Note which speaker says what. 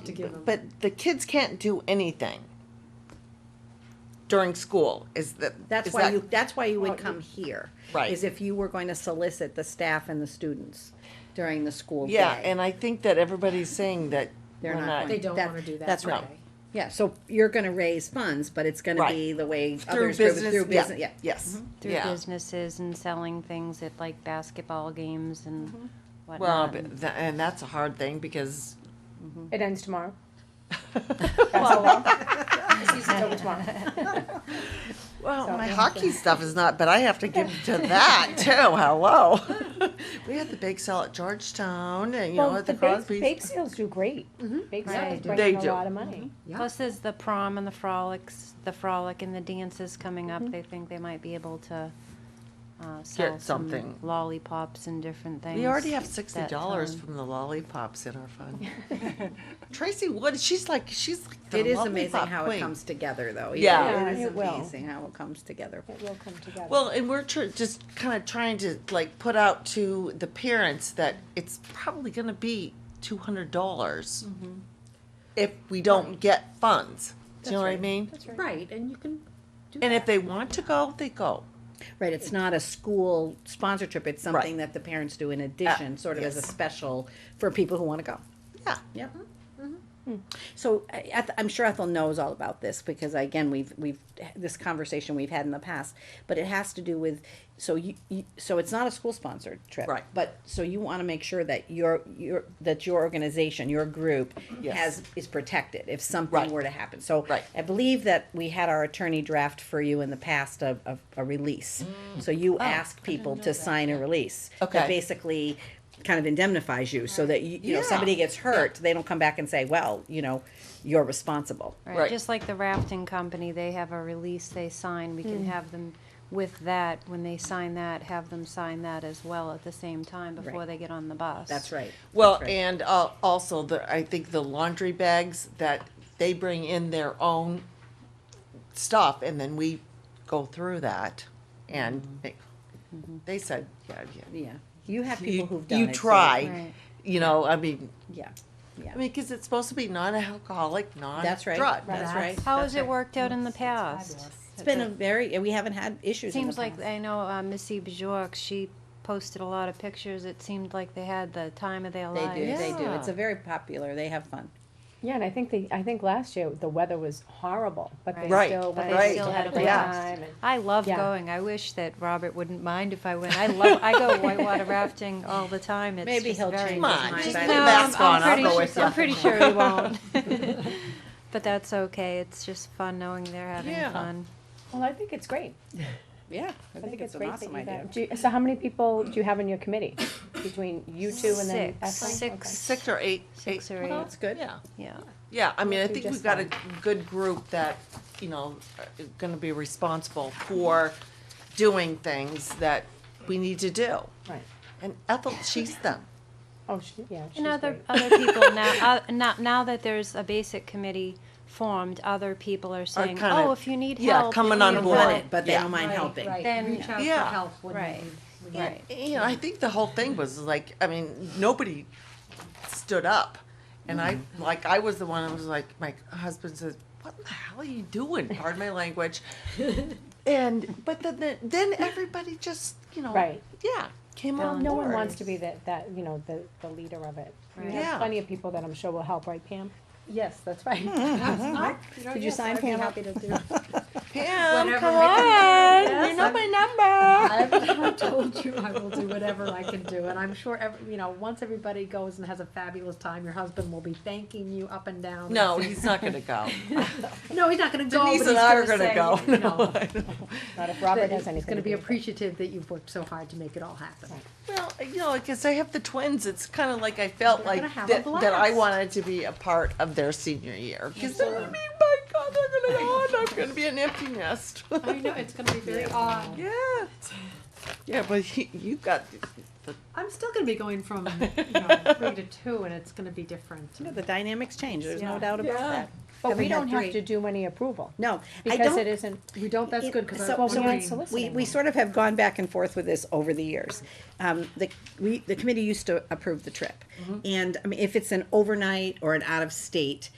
Speaker 1: give them.
Speaker 2: But the kids can't do anything during school, is that?
Speaker 3: That's
Speaker 2: is
Speaker 3: why
Speaker 2: that-
Speaker 3: you, that's why you would come here.
Speaker 2: Right.
Speaker 3: Is if you were going to solicit the staff and the students during the school day.
Speaker 2: Yeah, and I think that everybody's saying that
Speaker 3: They're
Speaker 2: we're
Speaker 3: not
Speaker 2: not,
Speaker 3: going
Speaker 1: They don't
Speaker 3: That-
Speaker 1: wanna do that.
Speaker 3: that's
Speaker 1: do
Speaker 2: right.
Speaker 1: they?
Speaker 3: Yeah, so you're gonna raise funds, but it's gonna
Speaker 2: Right.
Speaker 3: be the way
Speaker 2: through
Speaker 3: others, do it,
Speaker 2: business,
Speaker 3: through business,
Speaker 2: yeah, Mm-hmm.
Speaker 3: yeah.
Speaker 2: yes,
Speaker 4: through
Speaker 2: yeah.
Speaker 4: businesses and selling things at like basketball games and
Speaker 2: Mm-hmm. Well,
Speaker 4: whatnot.
Speaker 2: but tha- and that's a hard thing because,
Speaker 5: It ends tomorrow. It's over tomorrow.
Speaker 2: well,
Speaker 5: So-
Speaker 2: my hockey stuff is not, but I have to give to that too, hello. We had the bake sale at Georgetown and, you know,
Speaker 5: Well,
Speaker 2: at the
Speaker 5: the bake, bake
Speaker 2: Crosby's.
Speaker 5: sales do great. Bake sales
Speaker 4: Right. Mm-hmm.
Speaker 5: bring
Speaker 2: They
Speaker 5: in a
Speaker 2: do.
Speaker 5: lot of money.
Speaker 4: Plus, there's the prom and the frolics, the frolic and the dances coming
Speaker 3: Mm-hmm.
Speaker 4: up. They think they might be able to uh, sell some
Speaker 2: something.
Speaker 4: lollipops and different things.
Speaker 2: We already have sixty
Speaker 4: that um,
Speaker 2: dollars
Speaker 4: time.
Speaker 2: from the lollipops in our fund. Tracy Wood, she's like, she's like the
Speaker 3: It is amazing
Speaker 2: lollipop
Speaker 3: how it
Speaker 2: queen.
Speaker 3: comes together, though.
Speaker 2: Yeah.
Speaker 3: It
Speaker 5: Yeah,
Speaker 3: is
Speaker 5: it will.
Speaker 3: amazing how it comes together.
Speaker 5: It will come together.
Speaker 2: Well, and we're tr- just kind of trying to like put out to the parents that it's probably going to be two hundred dollars if we don't get funds. Do you know what I mean?
Speaker 1: Right, and you can do
Speaker 2: And if
Speaker 1: that.
Speaker 2: they want to go, they go.
Speaker 3: Right, it's not a school sponsor trip, it's something that the parents do in addition, sort of as a
Speaker 2: Uh, yes.
Speaker 3: special for people who wanna go.
Speaker 2: Yeah.
Speaker 3: Yep.
Speaker 2: Mm-hmm.
Speaker 3: Mm-hmm. So I- Eth- I'm sure Ethel knows all about this because again, we've, we've, this conversation we've had in the past, but it has to do with, so you, you- so it's not a school sponsored trip.
Speaker 2: Right.
Speaker 3: But, so you want to make sure that your, your, that your organization, your group
Speaker 2: Yes.
Speaker 3: has, is protected if
Speaker 2: Right.
Speaker 3: something were to happen. So
Speaker 2: Right.
Speaker 3: I believe that we had our attorney draft for you in the past of, of a release. So you ask people to sign a release.
Speaker 2: Mm. Okay.
Speaker 3: That basically kind of indemnifies you so that you, you know,
Speaker 2: Yeah.
Speaker 3: somebody gets hurt, they don't come back and say, well, you know, you're responsible.
Speaker 4: Right.
Speaker 2: Right.
Speaker 4: Just like the rafting company, they have a release they sign. We
Speaker 3: Mm.
Speaker 4: can have them with that when they sign that, have them sign that as well at the same time before
Speaker 3: Right.
Speaker 4: they get on the bus.
Speaker 3: That's right.
Speaker 2: Well,
Speaker 3: That's right.
Speaker 2: and uh, also the I think the laundry bags that they bring in their own stuff, and then we go through that, and
Speaker 3: Mm-hmm.
Speaker 2: they, they said, yeah, yeah.
Speaker 3: Yeah, you have Mm-hmm. people
Speaker 2: you,
Speaker 3: who've done
Speaker 2: you
Speaker 3: it. so-
Speaker 2: tried.
Speaker 4: Right.
Speaker 2: You know, I mean,
Speaker 3: Yeah,
Speaker 2: I mean, because it's supposed to be non-alcoholic,
Speaker 3: that's right,
Speaker 2: non-drug.
Speaker 3: that's right.
Speaker 4: How
Speaker 3: that's
Speaker 4: has it
Speaker 3: right.
Speaker 4: worked out in the past?
Speaker 3: It's been a very, we haven't had issues in the
Speaker 4: Seems like,
Speaker 3: past.
Speaker 4: I know uh, Missy Bjork, she posted a lot of pictures. It seemed like they had the time of their
Speaker 3: They
Speaker 4: lives.
Speaker 3: do, they do.
Speaker 2: Yeah.
Speaker 3: It's a very popular, they have fun.
Speaker 5: Yeah, and I think the, I think last year, the weather was horrible, but they
Speaker 2: Right.
Speaker 5: still
Speaker 2: But
Speaker 5: went.
Speaker 2: they
Speaker 5: and
Speaker 2: still
Speaker 4: had a
Speaker 5: great
Speaker 4: blast.
Speaker 5: time and-
Speaker 4: I love
Speaker 5: Yeah.
Speaker 4: going. I wish that Robert wouldn't mind if I went. I love. I go whitewater rafting all the time. It's
Speaker 3: Maybe
Speaker 4: just
Speaker 3: he'll
Speaker 4: very
Speaker 3: change
Speaker 2: Come
Speaker 3: his
Speaker 2: on,
Speaker 3: mind.
Speaker 2: just
Speaker 3: by
Speaker 2: put
Speaker 3: the
Speaker 2: a
Speaker 3: time.
Speaker 4: No,
Speaker 2: mask
Speaker 4: I'm-
Speaker 2: on, I'll
Speaker 4: I'm
Speaker 2: go
Speaker 4: pretty
Speaker 2: with
Speaker 4: sure,
Speaker 2: ya.
Speaker 4: I'm pretty sure he won't. but that's okay. It's just fun knowing they're having
Speaker 2: Yeah.
Speaker 4: fun.
Speaker 5: Well, I think it's great.
Speaker 3: Yeah, I
Speaker 5: I
Speaker 3: think it's an
Speaker 5: great that
Speaker 3: awesome
Speaker 5: you've
Speaker 3: idea.
Speaker 5: had- do you- So how many people do you have on your committee? Between you two and then
Speaker 4: Six.
Speaker 5: Ashley?
Speaker 4: Six.
Speaker 2: Six or eight.
Speaker 4: Six
Speaker 2: eight.
Speaker 4: or
Speaker 3: Well,
Speaker 4: eight.
Speaker 3: that's good.
Speaker 2: Yeah,
Speaker 4: Yeah.
Speaker 2: yeah. I mean, I
Speaker 5: Do
Speaker 2: think we've
Speaker 5: just
Speaker 2: got a good group that, you know, are going to be responsible for doing things that we need to do.
Speaker 5: Okay. Right.
Speaker 2: And Ethel, she's them.
Speaker 5: Oh, she, yeah, she's
Speaker 4: And other
Speaker 5: great.
Speaker 4: other people now, uh, now now that there's a basic committee formed, other people are saying,
Speaker 2: kinda-
Speaker 4: "Oh, if you need
Speaker 2: yeah,
Speaker 4: help, if
Speaker 2: coming
Speaker 4: you
Speaker 2: on
Speaker 4: need
Speaker 2: board.
Speaker 4: help,
Speaker 3: But they
Speaker 2: Yeah.
Speaker 3: don't mind
Speaker 1: Right,
Speaker 3: helping.
Speaker 1: right.
Speaker 4: Then-
Speaker 1: Reach out
Speaker 2: Yeah.
Speaker 1: for help when
Speaker 4: Right.
Speaker 1: needed. When
Speaker 4: Right.
Speaker 1: needed.
Speaker 2: You know, I think the whole thing was like, I mean, nobody stood up. And I,
Speaker 5: Mm-hmm.
Speaker 2: like, I was the one, I was like, my husband says, what the hell are you doing? Pardon my language. And, but then- then, then everybody just, you know,
Speaker 5: Right.
Speaker 2: yeah, came
Speaker 4: Well,
Speaker 2: on
Speaker 5: No
Speaker 2: board.
Speaker 5: one wants to be the, that, you know, the, the leader of it. You
Speaker 4: Right.
Speaker 2: Yeah.
Speaker 5: have plenty of people that I'm sure will help, right Pam?
Speaker 1: Yes, that's right.
Speaker 2: Mm-hmm.
Speaker 1: Did you sign Pam up?
Speaker 2: Pam,
Speaker 1: Whatever
Speaker 2: come
Speaker 1: we can do.
Speaker 2: on,
Speaker 1: Yes,
Speaker 2: you know
Speaker 1: I'm-
Speaker 2: my number.
Speaker 1: I've I told you I will do whatever I can do, and I'm sure every, you know, once everybody goes and has a fabulous time, your husband will be thanking you up and down.
Speaker 2: No, he's not gonna go.
Speaker 1: No, he's not gonna go, but
Speaker 2: Denise
Speaker 1: he's
Speaker 2: and I
Speaker 1: gonna
Speaker 2: are gonna
Speaker 1: say,
Speaker 2: go.
Speaker 1: you know,
Speaker 2: No, I know.
Speaker 5: Not if
Speaker 1: that
Speaker 5: Robert has anything
Speaker 1: he's gonna
Speaker 5: to
Speaker 1: be
Speaker 5: do with it.
Speaker 1: appreciative that you've worked so hard to make it all happen.
Speaker 2: Well, you know, because I have the twins, it's kind of like I felt
Speaker 1: They're
Speaker 2: like
Speaker 1: gonna have a
Speaker 2: that, that I
Speaker 1: blast.
Speaker 2: wanted to be a part of their senior year. Because they're gonna be, my God, they're gonna go on, I'm gonna be an empty nest.
Speaker 1: I know, it's gonna be very odd.
Speaker 2: yeah. Yeah, but he, you got, the,
Speaker 1: I'm still gonna be going from, you know, three to two, and it's gonna be different.
Speaker 3: You know, The dynamics change, there's no
Speaker 1: Yeah.
Speaker 3: doubt about
Speaker 2: Yeah.
Speaker 3: that.
Speaker 5: But we
Speaker 1: Having had
Speaker 5: don't have
Speaker 1: three.
Speaker 5: to do any approval.
Speaker 3: No, I
Speaker 5: Because it
Speaker 3: don't,
Speaker 5: isn't,
Speaker 1: We don't, that's
Speaker 3: It-
Speaker 1: good, cause I
Speaker 3: so-
Speaker 5: well,
Speaker 1: was
Speaker 5: we aren't
Speaker 1: wondering.
Speaker 3: we,
Speaker 5: soliciting
Speaker 3: we
Speaker 5: them.
Speaker 3: sort of have gone back and forth with this over the years. Um, the, we, the committee used to approve the trip. And, I mean, if it's an overnight or an out-of-state,